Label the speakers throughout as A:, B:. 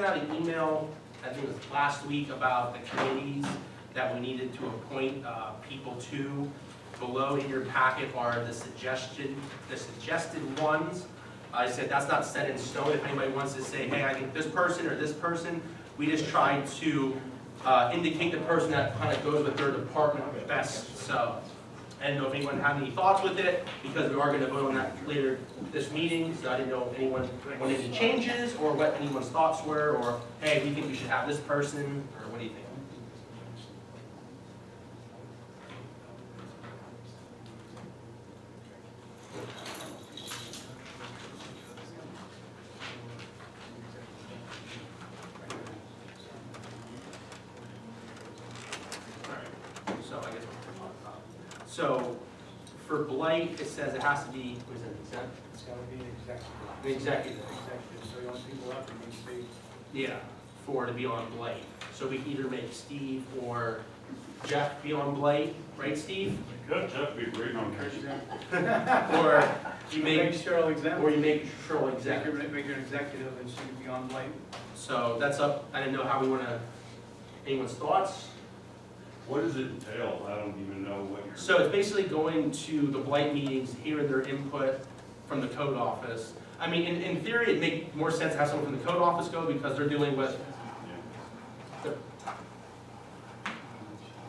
A: out an email, I think it was last week, about the committees that we needed to appoint uh, people to. Below in your packet are the suggestion, the suggested ones. I said, that's not set in stone, if anybody wants to say, hey, I think this person or this person, we just tried to uh, indicate the person that kind of goes with their department best, so. And if anyone had any thoughts with it, because we are gonna vote on that later this meeting, so I didn't know if anyone wanted any changes, or what anyone's thoughts were, or, hey, we think we should have this person, or what do you think? Alright, So I guess we'll talk about. So for blight, it says it has to be, what is it, exec?
B: It's gotta be
A: An
B: executive.
A: executive.
B: Executive, so you want people up and you see.
A: Yeah, for to be on blight. So we can either make Steve or Jeff be on blight, right, Steve?
C: Good, that'd be great on Christmas.
A: Or you
B: Make
A: make,
B: Cheryl executive.
A: or you make Cheryl exec.
B: Make her an executive and she can be on light.
A: So that's up, I didn't know how we wanna, anyone's thoughts?
C: What does it entail? I don't even know what you're.
A: So it's basically going to the blight meetings, hearing their input from the code office. I mean, in, in theory, it'd make more sense to have someone from the code office go because they're dealing with,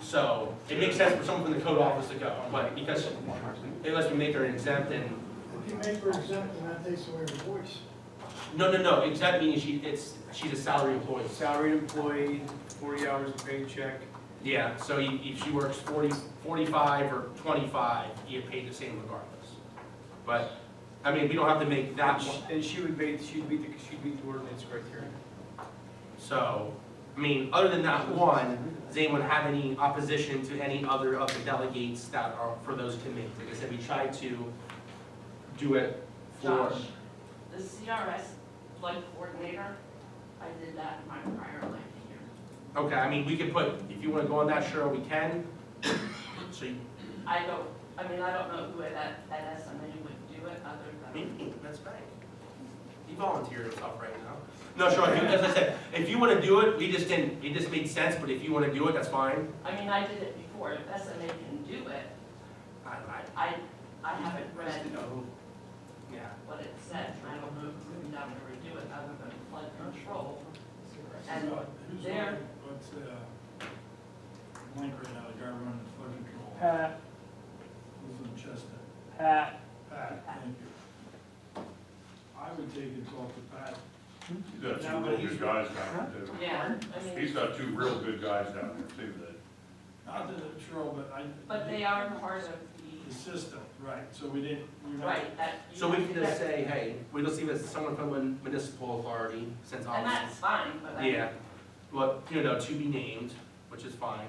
A: so it makes sense for someone from the code office to go, but because unless we make her an exempt and,
D: If you make her exempt, then that takes away her voice.
A: no, no, no, exempt means she, it's, she's a salary employee.
B: Salaried employee, forty hours a paycheck.
A: Yeah, so you- if she works 40, 45 or twenty-five, you get paid the same regardless. But, I mean, we don't have to make that one.
B: And she would be, she'd be, she'd be the ordinance criteria.
A: So, I mean, other than that one, does anyone have any opposition to any other of the delegates that are for those committees? Like I said, we tried to do it for.
E: Josh, the CRS flight coordinator, I did that in my prior life here.
A: Okay, I mean, we could put, if you wanna go on that, Cheryl, we can. So, you-
E: I don't, I mean, I don't know who at, at SMA would do it other
A: I
E: than,
A: mean, that's fine. You volunteer yourself right now. No, Cheryl, if you- as I said, if you wanna do it, we just didn't, it just made sense, but if you wanna do it, that's fine.
E: I mean, I did it before, if SMA can do it,
A: I, I,
E: I, I haven't read
A: yeah.
E: what it says, and I don't know who would ever do it other than flood control. And there,
F: What's, uh, link right now, the guy running the flood control?
B: Pat,
F: Who's in Chester?
B: Pat.
F: Pat, thank you. I would take it off the Pat.
C: He's got two real good guys down there too.
E: yeah, I mean,
C: He's got two real good guys down there too that,
F: Not that it's true, but I.
E: but they are part of the,
F: The system, right, so we didn't, we.
E: right, that. you
A: So we
E: have
A: can
E: to
A: just
E: get-
A: say, hey, we're just leave it as someone from a municipal authority, since
E: And
A: obviously.
E: that's fine, but I.
A: Yeah, well, you know, to be named, which is fine,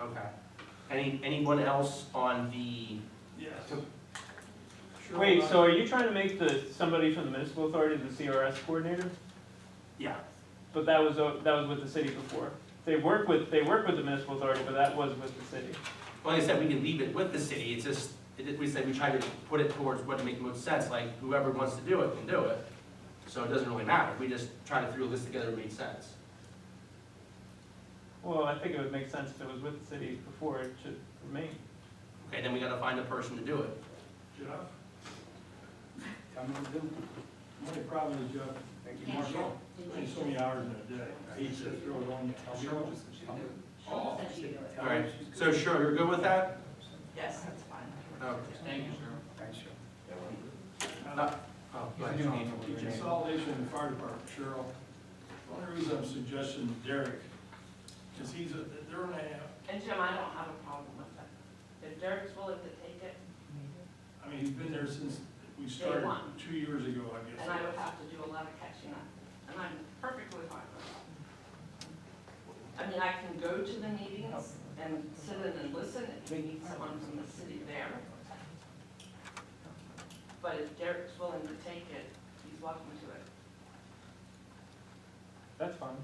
A: okay. Any, anyone else on the,
F: Yes.
G: Wait, so are you trying to make the, somebody from the municipal authority the CRS coordinator?
A: yeah,
G: But that was, o- that was with the city before. They work with, they work with the municipal authority, but that was with the city.
A: like I said, we can leave it with the city, it's just, it, we said we try to put it towards what makes most sense, like whoever wants to do it can do it. So it doesn't really matter, we just try to throw this together, it makes sense.
G: Well, I think it would make sense if it was with the city before, it should remain.
A: Okay, then we gotta find a person to do it.
F: Jeff,
B: Tell me what to do.
F: my problem is Jeff,
B: Thank you,
E: Yeah,
B: Marshall.
E: sure.
F: he's so many hours in a day, he just throw it on.
E: Sure, that you do it.
A: All right, so sure, you're good with that?
E: Yes, that's fine.
A: Okay.
E: Thank you, sir.
B: Thanks, Cheryl.
F: Uh,
A: Oh, go ahead, Sean.
F: The Consolidation in the fire department, Cheryl. The only reason I'm suggesting Derek is he's, a- they're on a,
E: And Jim, I don't have a problem with that. If Derek's willing to take it,
F: I mean, he's been there since we started
E: one.
F: two years ago, I guess.
E: and I would have to do a lot of catching up, and I'm perfectly fine with that. I mean, I can go to the meetings and sit in and listen if we need someone from the city there. But if Derek's willing to take it, he's welcome to it.
G: That's fine.